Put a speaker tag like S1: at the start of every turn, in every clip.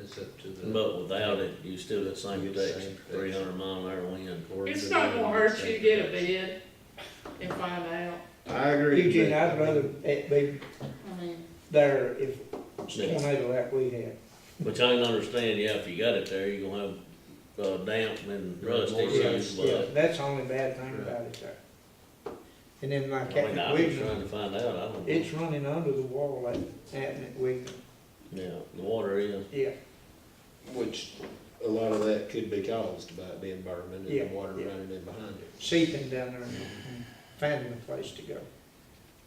S1: it's up to the.
S2: But without it, you still at same
S1: You'd
S2: protection,
S1: same
S2: three
S1: protection.
S2: hundred mile an hour wind.
S3: It's not gonna hurt you to get a bid and find out,
S1: I agree.
S4: Eugene,
S1: but, I
S4: I'd
S1: mean,
S4: rather it be
S3: I mean,
S4: there if
S2: Yeah.
S4: tornado like we had.
S2: Which I can understand, yeah, if you got it there, you're gonna have, uh, damp and rust
S1: More rust,
S2: issues,
S4: Yeah,
S2: but.
S4: that's the only bad thing about it there. And then
S2: I
S4: like
S2: mean, I
S4: at
S2: was
S4: Wigton,
S2: trying to find out, I don't know.
S4: it's running under the wall at, at Wigton,
S2: Yeah, the water is,
S4: yeah.
S1: Which, a lot of that could be caused by the environment and the
S4: Yeah,
S1: water
S4: yeah.
S1: running in behind it.
S4: seeping down there and finding a place to go.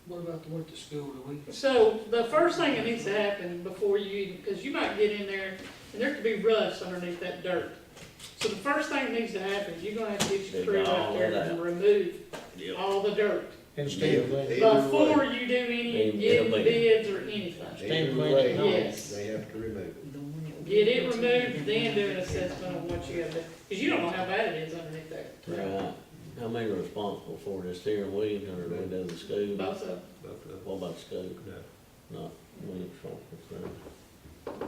S5: What about the one at the school, do we,
S3: so the first thing that needs to happen before you, even cause you might get in there and there could be rust underneath that dirt. So the first thing that needs to happen is you're gonna have to get your
S2: Dig
S3: crew out
S2: all
S3: there
S2: that
S3: and remove
S2: yeah,
S3: all the dirt
S4: Instead of letting,
S1: Either way.
S3: before you do any,
S2: Either
S3: getting
S2: way.
S3: bids or anything.
S1: Either
S4: Stand by
S1: way,
S4: it.
S3: Yes.
S1: they have to remove it.
S5: the one that we-
S3: Get it removed, then do an assessment on what you have to, cause you don't know how bad it is underneath there,
S2: right. How many are responsible for this here, Williams, or do we do the school?
S3: both of them.
S1: Both of them.
S2: What about the school?
S1: No.
S2: Not Williams, responsible for that.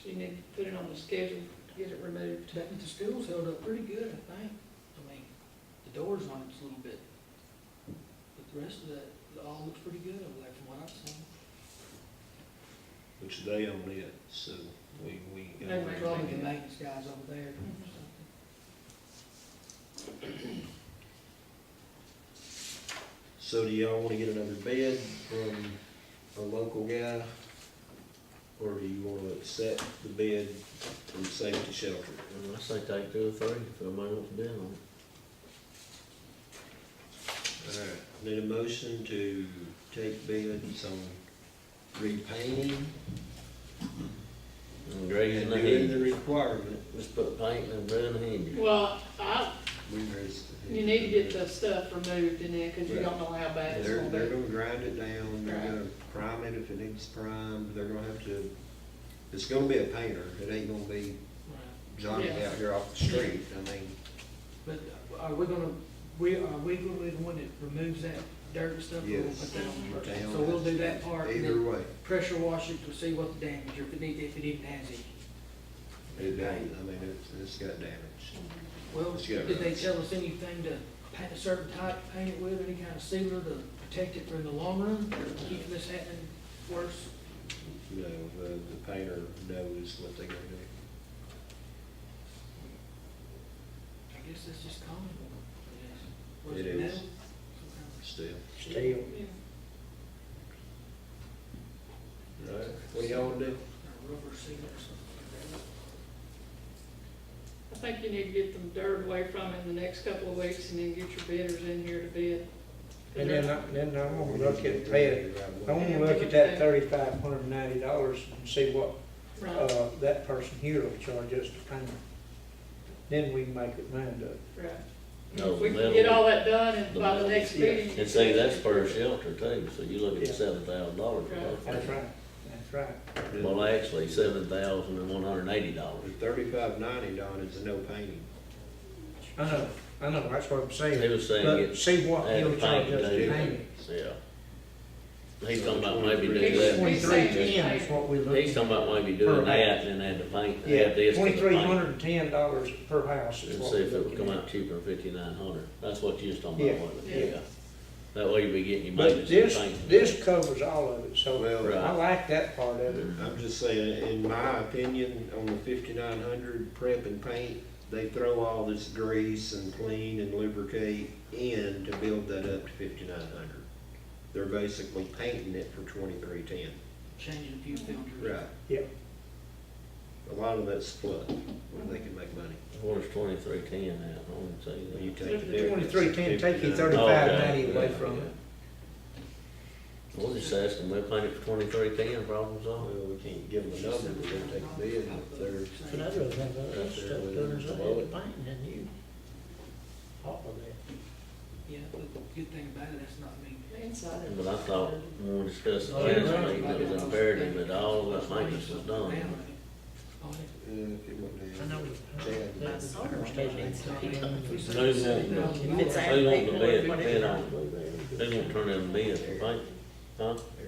S3: So you need to put it on the schedule, get it removed.
S5: That one at the school's held up pretty good, I think, I mean, the doors on it's a little bit, but the rest of that, it all looks pretty good over there from what I've seen.
S1: Which they own it, so we, we. ain't
S3: They
S1: gonna do
S3: might
S5: Probably the
S1: anything.
S5: maintenance guys over there. or something.
S1: So do y'all wanna get another bid from a local guy? Or do you wanna accept the bid from Safety Shelter?
S2: And I say take two or three, if anybody wants to bid on it.
S1: Alright, need a motion to take bids on repainting
S2: And
S1: and
S2: grazing the
S1: doing
S2: hedge,
S1: the requirement.
S2: just put paint and burn the hedge.
S3: Well, I,
S1: We raised the-
S3: you need to get the stuff removed in there, cause you
S1: Right.
S3: don't know how bad it's
S1: They're,
S3: gonna
S1: they're
S3: be.
S1: gonna grind it down, they're
S3: Right.
S1: gonna prime it if it needs primed, they're gonna have to, it's gonna be a painter, it ain't gonna be
S5: Right.
S1: Johnny
S3: Yeah.
S1: out here off the street, I mean.
S5: But uh, are we gonna, we, are we gonna be the one that removes that dirt and stuff? or we'll
S1: Yes.
S5: put that on first?
S1: Down.
S5: So we'll do that part, and
S1: Either
S5: then
S1: way,
S5: pressure wash it to see what the damage, or if it needs, if it even has any.
S1: it doesn't, I mean, it's, it's got damage.
S5: Well,
S1: Let's get it
S5: did they
S1: right.
S5: tell us anything to paint a certain type, paint it with, any kind of sealer to protect it from the long run, or keep this happening worse?
S1: You know, the, the painter knows what they're gonna do.
S5: I guess that's just common. I guess. Was
S1: It
S5: metal?
S1: is.
S5: Some kind of-
S1: Still.
S4: steel,
S3: Yeah.
S1: Right, what y'all wanna do?
S5: A rubber sealer or something like
S3: I
S5: that.
S3: think you need to get them dirt away from it in the next couple of weeks and then get your bidders in here to bid.
S4: and then, uh, I- then I'm gonna look at pay, I wanna look at that thirty-five hundred and ninety dollars and see what,
S3: Right,
S4: uh, that person here will charge us to paint. Then we can make it mind up.
S3: right.
S2: No,
S3: If we
S2: metal-
S3: can get all that done and
S2: the
S3: by the
S2: metal,
S3: next
S4: yeah.
S3: meeting.
S2: And see, that's per shelter too, so you look
S4: Yeah.
S2: at seven thousand dollars.
S4: That's right, that's right.
S2: Well, actually, seven thousand and one hundred and eighty
S1: The
S2: dollars.
S1: thirty-five ninety, Don, is no painting.
S4: I know, I know, that's what I'm
S2: He
S4: saying,
S2: was saying
S4: but
S2: it's,
S4: see what
S2: add
S4: he'll
S2: the
S4: charge
S2: paint
S4: us
S2: to
S4: to
S2: it.
S4: paint it.
S2: yeah. He's talking about maybe
S1: He's
S2: do
S3: He's
S2: that,
S4: Twenty-three
S3: saying
S4: ten is
S3: paint.
S4: what we looked.
S2: he's talking about maybe doing that and then add the paint, add
S4: Yeah,
S2: this to the
S4: twenty-three
S2: paint.
S4: hundred and ten dollars per house is
S2: And
S4: what
S2: see
S4: we're
S2: if it would
S4: looking
S2: come
S4: at.
S2: out cheaper than fifty-nine hundred, that's what you was talking about,
S4: Yeah,
S2: wasn't
S3: yeah.
S2: it? Yeah. That way you'd be getting your
S4: But
S2: maintenance
S4: this,
S2: and paint.
S4: this covers all of it, so
S1: Well,
S2: Right.
S4: I like that part of it.
S1: I'm just saying, in my opinion, on the fifty-nine hundred prep and paint, they throw all this grease and clean and lubricate in to build that up to fifty-nine hundred. They're basically painting it for twenty-three ten.
S5: Changing a few filters.
S4: Yeah.
S1: A lot of that's flood, where they can make money.
S2: What is twenty-three ten at, I wouldn't say
S1: When
S2: that.
S1: you take the
S3: The
S1: difference,
S4: Twenty-three ten, take your
S1: 59.
S4: thirty-five
S2: Okay,
S4: ninety away
S2: yeah,
S4: from
S2: yeah.
S4: it.
S2: We'll just ask them, we'll paint it for twenty-three ten, problem
S1: Well,
S2: solved.
S1: we can't give them a number, we're gonna take the bid, and if they're
S6: But I'd rather have all that stuff done as I had with painting than you. All of that.
S5: Yeah, but the good thing about it, that's not me.
S3: Inside it.
S2: But I thought, when we discussed
S5: Oh,
S2: the last meeting, it was imperative that all of that maintenance was done.
S5: Oh, yeah.
S1: Uh, if it wouldn't
S6: I
S1: have-
S6: know
S1: Chad.
S6: that the state needs to keep on.
S2: Who won't,
S6: If it's
S2: who
S6: out,
S2: won't
S6: people,
S2: bid,
S6: whatever.
S2: bid on, who won't turn in the bid for paint, huh?
S1: They